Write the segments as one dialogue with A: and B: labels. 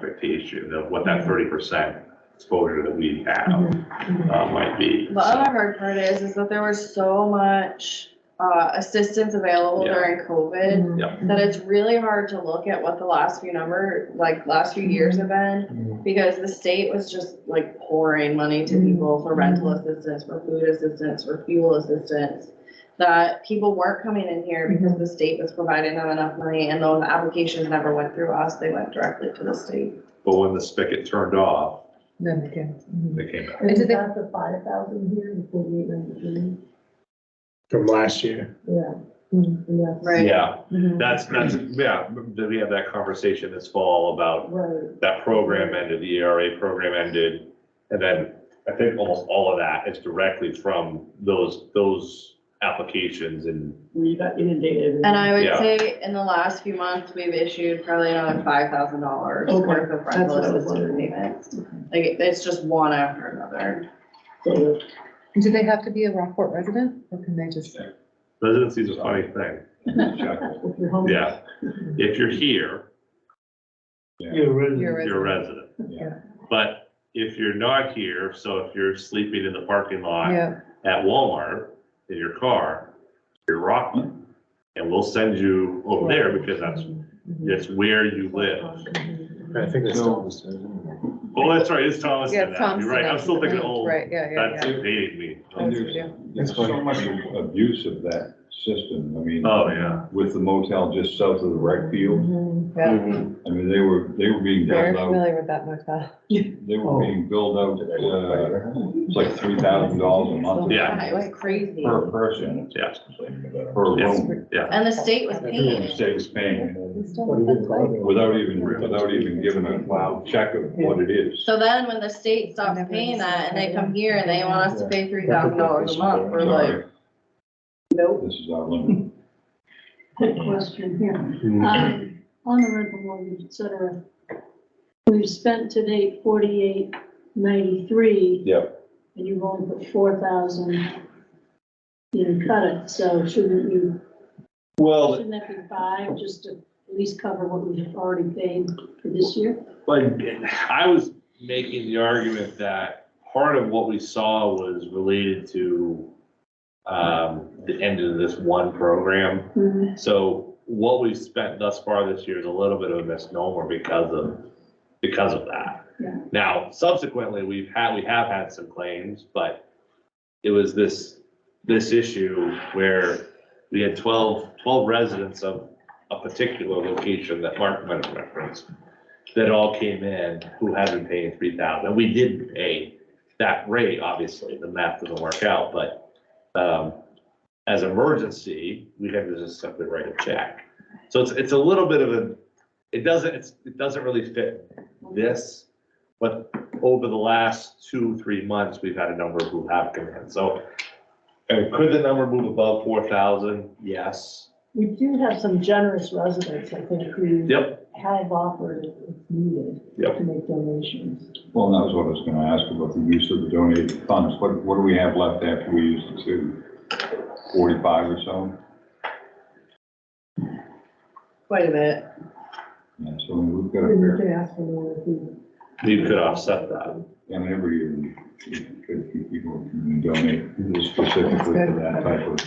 A: the issue, of what that thirty percent exposure that we have,
B: Mm-hmm.
A: uh, might be.
C: The other hard part is, is that there was so much, uh, assistance available
A: Yeah.
C: during COVID Mm-hmm. that
B: Mm-hmm.
C: it's really hard to look at what the last few number, like last few years have been. Because the state was just like pouring money to people for rental assistance, for food assistance, for fuel assistance. That people weren't coming in here because the state was providing them enough money and those applications never went through us, they went directly to the state.
A: But when the spigot turned off,
D: Then again.
A: they came back.
D: Is
B: Isn't
D: it the-
B: that the five thousand here, the forty-eight ninety-three?
E: From last year.
B: Yeah.
D: Mhm.
B: And that's-
C: Mm-hmm. Right. Mm-hmm.
A: Yeah,
B: Mm-hmm.
A: that's, that's, yeah, did we have that conversation this fall about
B: Right,
A: that program ended, the ERA program ended, and then I think almost all of that is directly from those, those applications and
B: where you got inundated.
C: And I
A: Yeah.
C: would say in the last few months, we've issued probably another five thousand dollars
B: Okay,
C: worth of
B: that's
C: rental
B: what I was
C: assistance
B: wondering.
C: payments. Like, it- it's just one after another.
B: So,
D: Do they have to be a Rockport resident or can they just?
A: residency is a funny thing.
B: if you're home.
A: Yeah, if you're here,
E: You're
D: You're a
A: you're a
D: resident.
A: resident.
D: Yeah.
A: But if you're not here, so if you're sleeping in the parking lot
D: Yeah,
A: at Walmart in your car, you're Rockland. And we'll send you over there because that's,
B: Mm-hmm.
D: mhm.
A: that's where you live.
E: I think it's still.
A: Oh, that's right, it's Thomas.
D: Yeah,
A: You're
D: Thompson,
A: Right, I'm
D: that's
A: still
D: the
A: thinking
D: name.
A: old.
D: Right, yeah, yeah,
A: That's
D: yeah.
A: dating me.
D: That's what we do.
F: There's so much abuse of that system, I mean.
A: Oh, yeah.
F: With the motel just south of the rec field,
D: Mhm, Yeah,
F: I mean, they were, they were being
D: very
F: built out,
D: familiar with that motel.
F: they were being billed out, uh, it's like three thousand dollars a month.
A: Yeah.
C: It was crazy.
F: Per person,
A: Yeah.
F: per room,
C: And the state was
F: the
C: paying.
F: state was paying,
D: We still have that site.
F: without even, without even giving a wow check of what it is.
C: So then when the state stops
D: Never
C: paying that and they
D: understood
C: come here and they want us to pay three thousand dollars a month, we're like,
F: Sorry,
C: nope.
F: This is our limit.
G: Quick question here. Um, On the rental mortgage, et cetera, we've spent to date forty-eight ninety-three,
F: Yep,
G: and you've only put four thousand in cut it, so shouldn't you,
F: well,
G: shouldn't that be five, just to at least cover what we've already paid for this year?
A: Like, I was making the argument that part of what we saw was related to um, the end of this one program. So what we've spent thus far this year is a little bit of a misnomer because of, because of that.
G: Yeah.
A: Now, subsequently, we've had, we have had some claims, but it was this, this issue where we had 12 12 residents of a particular location that Mark might have referenced that all came in who hadn't paid three thousand. We did pay that rate, obviously, the math doesn't work out, but, um, as emergency, we had to just simply write a check. So it's, it's a little bit of a, it doesn't, it's, it doesn't really fit this, but over the last two, three months, we've had a number who have come in, so. And could the number move above four thousand? Yes.
B: We do have some generous residents, I think, who
A: Yep,
B: have offered if needed
A: Yep.
B: to make donations.
F: Well, that was what I was gonna ask about the use of the donated funds. What, what do we have left after we use the two? Forty-five or so?
C: quite a bit.
F: Yeah, so we've got a
B: And we
F: fair,
B: could ask for more if we.
A: you could offset that.
F: and every year we could keep people can donate specifically for that type of.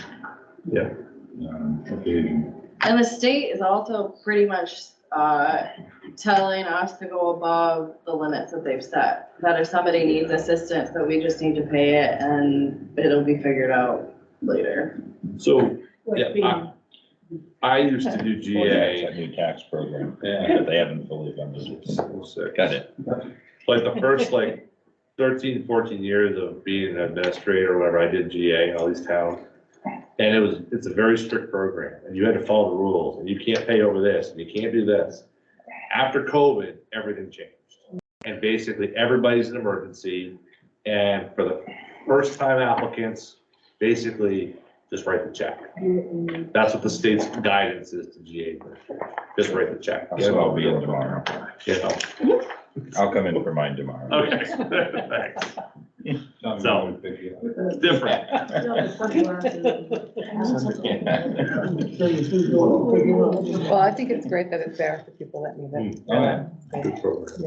A: Yeah.
F: um, Occasion.
C: And the state is also pretty much, uh, telling us to go above the limits that they've set. That if somebody needs assistance, that we just need to pay it and it'll be figured out later.
A: So
B: what
A: Yeah,
B: we-
A: I- I used to do
H: Well, yeah, it's
A: GA.
H: that new tax program,
A: Yeah.
H: but they haven't fully implemented it. Got it.
A: Like the first like 13, 14 years of being an administrator, or whatever, I did GA in all these towns. And it was, it's a very strict program and you had to follow the rules and you can't pay over this and you can't do this. After COVID, everything changed. And basically everybody's an emergency. And for the first time applicants, basically just write the check. That's what the state's guidance is to GA. Just write the check.
H: That's what I'll be in tomorrow.
A: You know?
H: I'll come in for mine tomorrow.
A: Okay, thanks.
F: Some
A: So-
F: would pick it up.
A: It's different.
B: So you think we'll figure out-
D: Well, I think it's great that it's there for people that need it.
F: All right.